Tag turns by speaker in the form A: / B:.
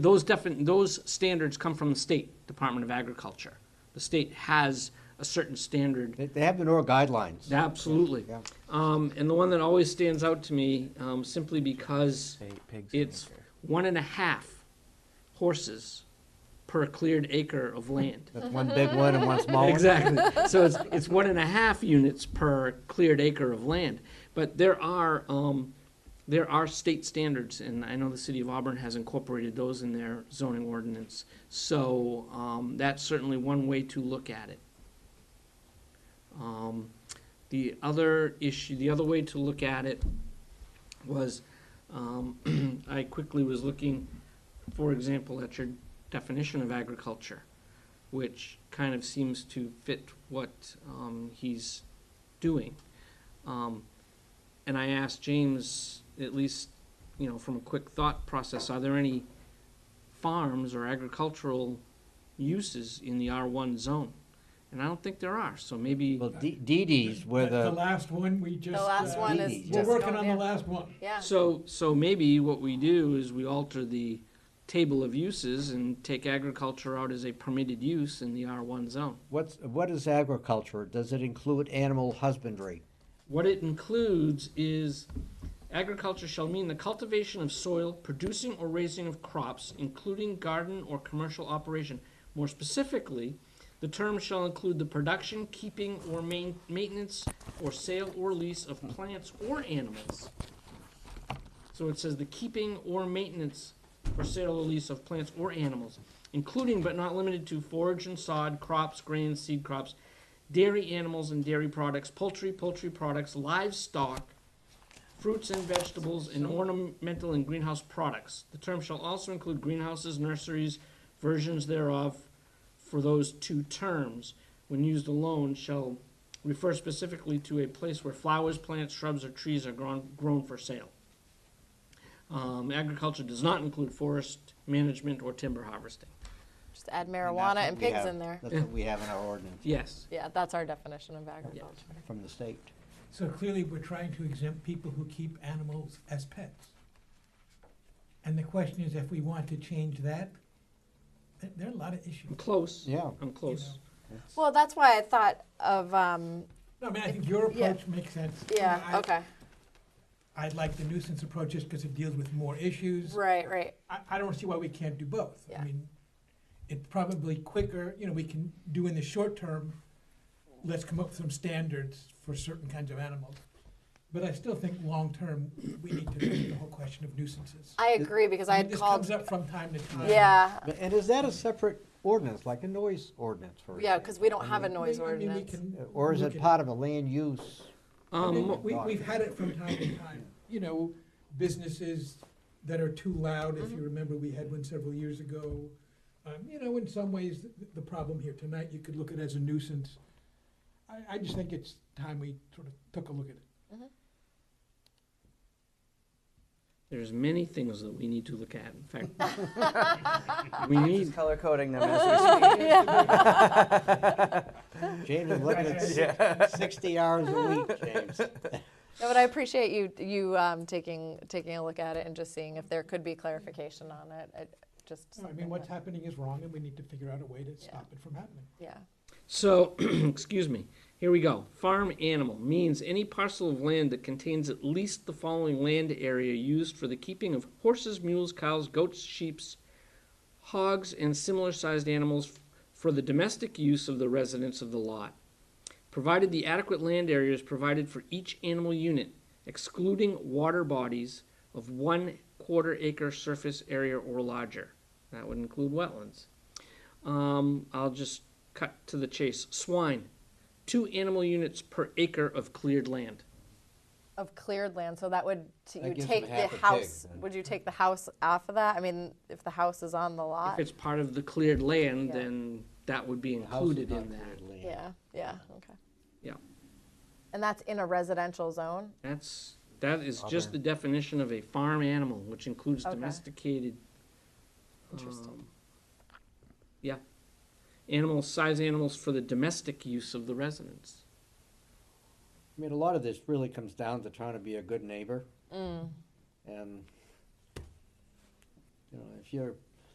A: Those defin, those standards come from the state Department of Agriculture. The state has a certain standard
B: They, they have the NOR guidelines.
A: Absolutely.
B: Yeah.
A: Um, and the one that always stands out to me, um, simply because it's one and a half horses per cleared acre of land.
B: That's one big one and one small one.
A: Exactly. So it's, it's one and a half units per cleared acre of land. But there are, um, there are state standards, and I know the city of Auburn has incorporated those in their zoning ordinance. So, um, that's certainly one way to look at it. Um, the other issue, the other way to look at it was, um, I quickly was looking, for example, at your definition of agriculture, which kind of seems to fit what um, he's doing. Um, and I asked James, at least, you know, from a quick thought process, are there any farms or agricultural uses in the R1 zone? And I don't think there are, so maybe.
B: Well, D- DDs were
C: The
B: the,
C: last one, we just.
D: The last
C: uh,
D: one is
B: Indeed.
D: just
C: We're working on
D: going
C: the
D: in.
C: last one.
D: Yeah,
A: So, so maybe what we do is we alter the table of uses and take agriculture out as a permitted use in the R1 zone.
B: what's, what is agriculture? Does it include animal husbandry?
A: What it includes is agriculture shall mean the cultivation of soil, producing or raising of crops, including garden or commercial operation. More specifically, the term shall include the production, keeping, or main, maintenance, or sale or lease of plants or animals. So it says the keeping or maintenance or sale or lease of plants or animals, including but not limited to forage and sod, crops, grains, seed crops, dairy animals and dairy products, poultry, poultry products, livestock, fruits and vegetables, and ornamental and greenhouse products. The term shall also include greenhouses, nurseries, versions thereof for those two terms. When used alone, shall refer specifically to a place where flowers, plants, shrubs, or trees are grown, grown for sale. Um, agriculture does not include forest management or timber harvesting.
D: just add
B: And that's
D: marijuana
B: what
D: and
B: we
D: pigs
B: have-
D: in there.
B: That's what we have in our ordinance
A: Yes.
D: Yeah, that's our definition of agriculture.
B: from the state.
C: So clearly, we're trying to exempt people who keep animals as pets. And the question is, if we want to change that, th- there are a lot of
A: I'm
C: issues.
A: close.
B: Yeah.
A: I'm close.
D: Well, that's why I thought of, um,
C: No, I mean, I think your
D: Yeah.
C: approach makes sense. You know,
D: yeah,
C: I-
D: okay,
C: I like the nuisance approach just because it deals with more issues.
D: right, right,
C: I, I don't see why we can't do both.
D: Yeah.
C: I mean, it's probably quicker, you know, we can do in the short term, let's come up with some standards for certain kinds of animals. But I still think long-term, we need to look at the whole question of nuisances.
D: I agree, because I
C: mean,
D: had
C: This
D: called,
C: comes up from time to time.
D: yeah,
B: But- And is that a separate ordinance, like a noise ordinance, for
D: yeah, because
B: example?
D: we don't have a
C: I mean,
D: noise
C: I mean, we
D: ordinance.
C: can
B: Or is
C: look
B: it
C: at-
B: part of a land use?
C: I mean,
A: Um,
C: We, we've had it from time to time, you know, businesses that are too loud, if you remember, we had one several years ago. Um, you know, in some ways, the, the problem here tonight, you could look at as a nuisance. I, I just think it's time we sort of took a look at it.
A: there's many things that we need to look at. In fact, we need.
E: color coding them as
B: James is looking at six- sixty hours a week, James.
D: No, but I appreciate you, you, um, taking, taking a look at it and just seeing if there could be clarification on it, it, just
C: No, I
D: something
C: mean, what's
D: that,
C: happening is wrong, and we need to figure out a way to stop it from happening.
D: yeah.
A: So, excuse me. Here we go. Farm animal means any parcel of land that contains at least the following land area used for the keeping of horses, mules, cows, goats, sheep, hogs, and similar sized animals f- for the domestic use of the residents of the lot, provided the adequate land area is provided for each animal unit, excluding water bodies of one quarter acre surface area or larger. That would include wetlands. Um, I'll just cut to the chase. Swine, two animal units per acre of cleared land.
D: Of cleared land, so that would, so
B: That
D: you
B: gives
D: take
B: them
D: the
B: half a pig,
D: house,
B: then.
D: would you take the house off of that? I mean, if the house is on the
A: If
D: lot,
A: it's part of the cleared land,
D: Yeah.
A: then that would be
B: The house is
A: included
B: not
A: in that.
B: cleared land.
D: yeah, yeah, okay.
A: Yeah.
D: And that's in a residential zone?
A: That's, that is just the definition of a farm animal, which includes
D: Okay.
A: domesticated.
D: Interesting.
A: um, Yeah. Animals, size animals for the domestic use of the residents.
B: I mean, a lot of this really comes down to trying to be a good neighbor. And, you know, if you're